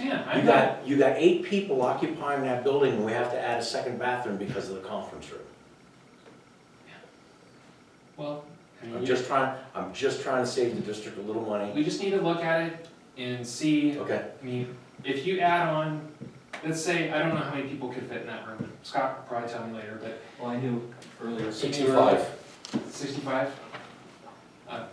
You got, you got eight people occupying that building, and we have to add a second bathroom because of the conference room. Well, I mean, I'm we- just trying, I'm just trying to save the district a little money. we just need to look at it and see, Okay, I mean, if you add on, let's say, I don't know how many people could fit in that room, Scott will probably tell me later, but Well, I knew earlier, sixty-five. sixty-five?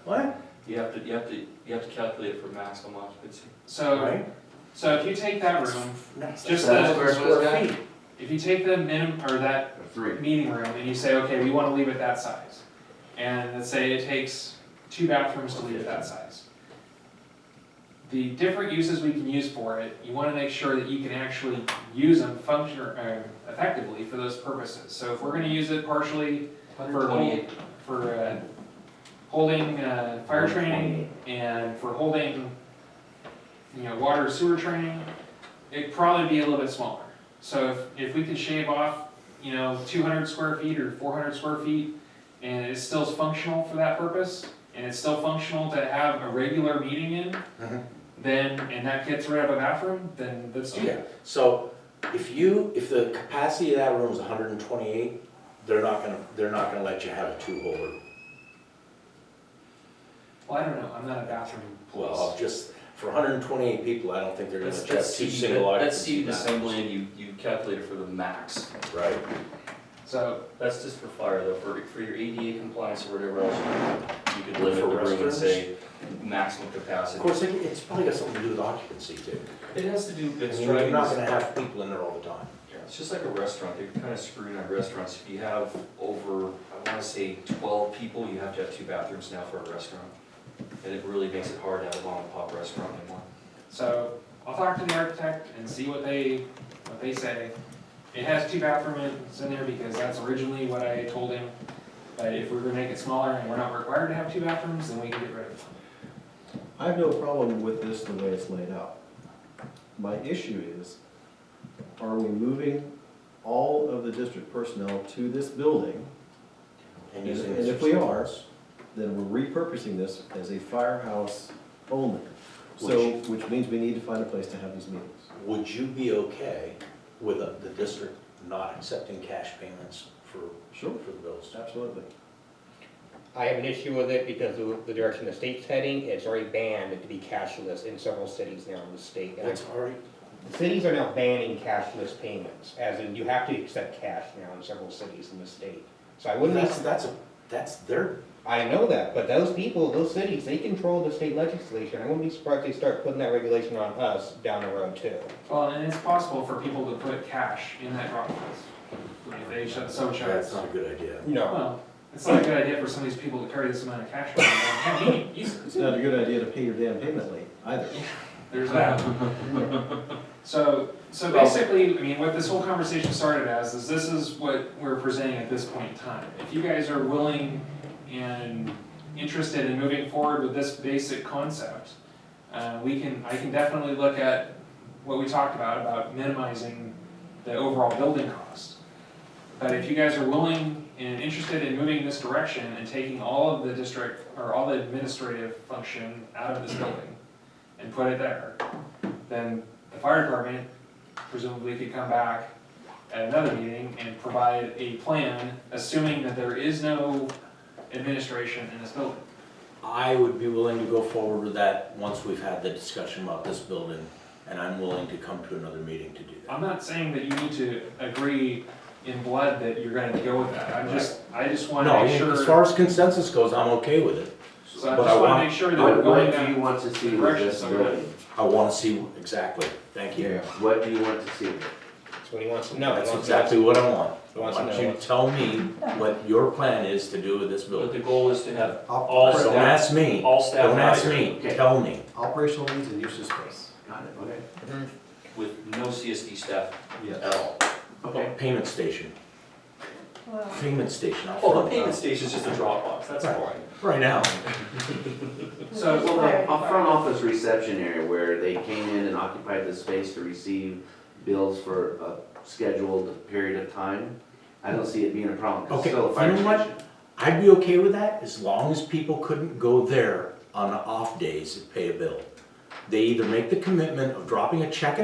What? you have to, you have to, you have to calculate it for maximum occupancy. So, Right? so if you take that room, That's Just a the- thousand square feet. if you take the minim, or that Three. meeting room and you say, okay, we wanna leave it that size. And let's say it takes two bathrooms to leave it that size. The different uses we can use for it, you wanna make sure that you can actually use them function, uh, effectively for those purposes. So if we're gonna use it partially Hundred twenty-eight, for, uh, holding, uh, fire training and for holding, you know, water sewer training, it'd probably be a little bit smaller. So if, if we could shave off, you know, two hundred square feet or four hundred square feet, and it still is functional for that purpose, and it's still functional to have a regular meeting in, Mhm. then, and that gets rid of a bathroom, then let's do Okay, it. so if you, if the capacity of that room is hundred and twenty-eight, they're not gonna, they're not gonna let you have a two-holder. Well, I don't know, I'm not a bathroom Well, police. just, for hundred and twenty-eight people, I don't think they're gonna that's, let you have that's two seated, single that's occupancy seated bathrooms. assembly and you, you calculate it for the max. Right, So, That's just for fire though, for, for your ADA compliance or whatever else, you could limit For the room and restrooms? say maximum capacity. of course, it- it's probably got something to do with occupancy too. It has to do, I it's mean, you're driving, not this- gonna have people in there all the time. it's just like a restaurant, they're kind of screwing at restaurants, if you have over, I wanna say twelve people, you have to have two bathrooms now for a restaurant. And it really makes it hard to have a mom and pop restaurant anymore. So I'll talk to the architect and see what they, what they say. It has two bathrooms in there because that's originally what I told him. But if we were to make it smaller and we're not required to have two bathrooms, then we can get rid of them. I have no problem with this the way it's laid out. My issue is, are we moving all of the district personnel to this building? And using And if we are, restrooms. Then we're repurposing this as a firehouse only. So, which means we need to find a place to have these meetings. Would you be okay with uh, the district not accepting cash payments for, Sure. for the bills? Absolutely. I have an issue with it because of the direction the state's heading, it's already banned to be cashless in several cities now in the state. And That's already, the Cities are now banning cashless payments, as in you have to accept cash now in several cities in the state. So I wouldn't, that's, be- that's, a- that's their, I know that, but those people, those cities, they control the state legislation. I wouldn't be surprised if they start putting that regulation on us down the road too. Well, and it's possible for people to put cash in that drop box. If they shut, so shut. that's not a good idea. No, Well, it's not a good idea for some of these people to carry this amount of cash around. Hey, you- you- It's not a good idea to pay your damn payment late either. There's that. So, so basically, I mean, what this whole conversation started as is this is what we're presenting at this point in time. If you guys are willing and interested in moving forward with this basic concept, uh, we can, I can definitely look at what we talked about, about minimizing the overall building cost. But if you guys are willing and interested in moving in this direction and taking all of the district, or all the administrative function out of this building and put it there, then the fire department presumably could come back at another meeting and provide a plan, assuming that there is no administration in this building. I would be willing to go forward with that once we've had the discussion about this building, and I'm willing to come to another meeting to do that. I'm not saying that you need to agree in blood that you're gonna go with that, I'm just, I just wanna No, make as sure, far as consensus goes, I'm okay with it. so I but I just wanna want- make sure that we're What, going what down. do you want to see with direction this somewhere. building? I wanna see, exactly, thank you. What do you want to see? that's what he wants to know. He That's wants to know- exactly what I want. I He wants to want know you to tell me what your plan is to do with this But building. the goal is to have Op- all Don't staff, ask me, all staff. don't ask hired me, Okay. tell me. Operational needs and use of space. Got it, okay. Mm-hmm. With no CSD staff Yes. at all. Okay. Payment station, payment station, I'll Oh, the front payment station's just a drop box, that's Right. fine. right now. So, Well, the a front office reception area where they came in and occupied the space to receive bills for a scheduled period of time, I don't see it being a problem. 'cause Okay, it's still a you fire know what? station. I'd be okay with that as long as people couldn't go there on the off days and pay a bill. They either make the commitment of dropping a check